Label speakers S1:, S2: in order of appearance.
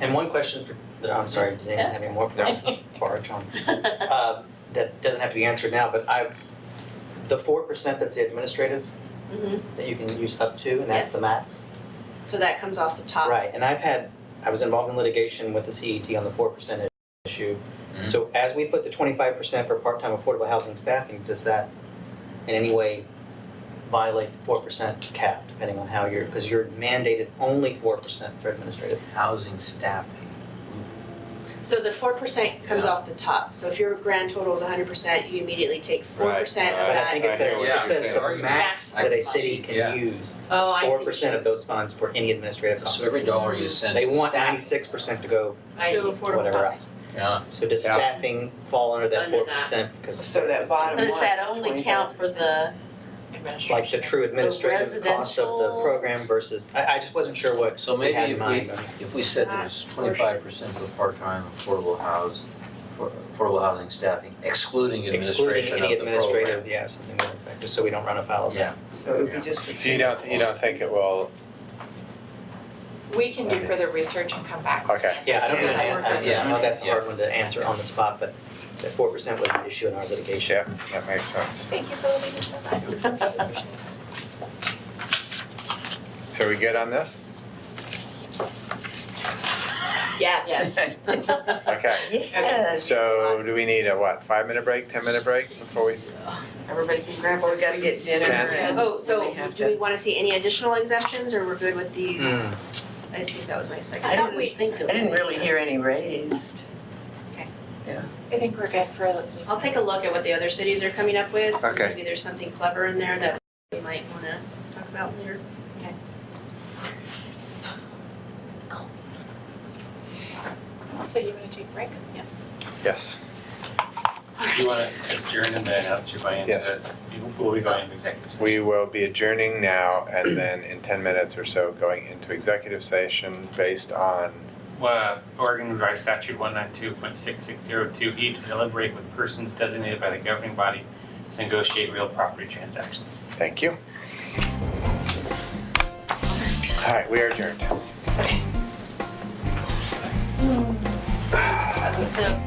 S1: And one question for, I'm sorry, does anyone have any more for Laura, John? Uh, That doesn't have to be answered now, but I, the four percent that's the administrative,
S2: Mhm.
S1: that you can use up to, and that's the max?
S2: So that comes off the top.
S1: Right, and I've had, I was involved in litigation with the CET on the four percent issue.
S3: Mhm.
S1: So as we put the twenty-five percent for part-time affordable housing staffing, does that in any way violate the four percent cap, depending on how you're, because you're mandated only four percent for administrative?
S3: Housing staffing.
S2: So the four percent comes
S3: Yeah.
S2: off the top. So if your grand total is hundred percent, you immediately take four
S4: Right,
S2: percent of
S4: right.
S1: But I
S2: that.
S1: think it
S4: I hear
S1: says,
S4: what
S3: you're
S1: it says
S4: saying.
S1: the
S3: Argument.
S1: max
S2: Max
S1: that a
S2: the
S1: city
S3: Yeah.
S1: can use
S2: Oh, I see.
S1: four percent of those funds for any administrative costs.
S3: So every dollar you send.
S1: They
S3: to
S1: want
S3: staff-
S1: ninety-six percent to go
S2: I
S1: to
S2: see.
S1: whatever else.
S3: Yeah,
S1: So does
S4: Yeah.
S1: staffing fall under that
S2: Under
S1: four
S2: that.
S1: percent? Because
S5: So that bottom
S6: But does that only count for the,
S1: Like the true administrative cost of the
S6: residential-
S1: program versus, I, I just wasn't sure what
S3: so
S1: we had
S3: maybe
S1: in
S3: if
S1: mind.
S3: we, if we said there was twenty-five percent of the part-time affordable house, for- affordable housing staffing, excluding
S1: Excluding
S3: administration of
S1: any
S3: the program.
S1: administrative, yeah, something like that, just so we don't run afoul of that.
S3: Yeah,
S5: So it would be just for.
S4: So you don't, you don't think it will,
S6: we can do
S4: Okay.
S6: further research and come back. with
S4: Okay.
S6: answers.
S1: Yeah, I don't know,
S6: That's
S1: I- I,
S6: perfect.
S1: I know that's a
S3: Yeah.
S1: hard one to answer on the spot, but that four percent was an issue in our litigation.
S4: yeah, that makes sense.
S6: Thank you for letting us know that.
S4: So are we good on this?
S2: Yes.
S4: Okay,
S5: Yes.
S4: so do we need a what, five minute break, ten minute break before we,
S5: Everybody can grab, or we gotta get dinner
S4: Ten.
S5: and.
S2: Oh,
S5: we
S2: so
S5: have
S2: do
S5: to-
S2: we wanna see any additional exemptions or we're good with these?
S1: Hmm.
S2: I think that was my second.
S5: I
S6: I
S5: don't
S6: thought we,
S5: I didn't really hear any raised.
S6: I think we're good for at least.
S2: I'll take a look at what the other cities are coming up with.
S4: Okay.
S2: Maybe there's something clever in there that we might wanna talk about later.
S6: So you wanna take a break? Yeah.
S4: yes,
S7: Do you want to adjourn and then have to buy into
S4: Yes.
S7: it? Will we go into executive session?
S4: we will be adjourning now and then in ten minutes or so going into executive session based on,
S7: Well, Oregon Revised Statute one nine two point six six zero two E to deliberate with persons designated by the governing body to negotiate real property transactions.
S4: thank you. All right, we are adjourned.
S2: So.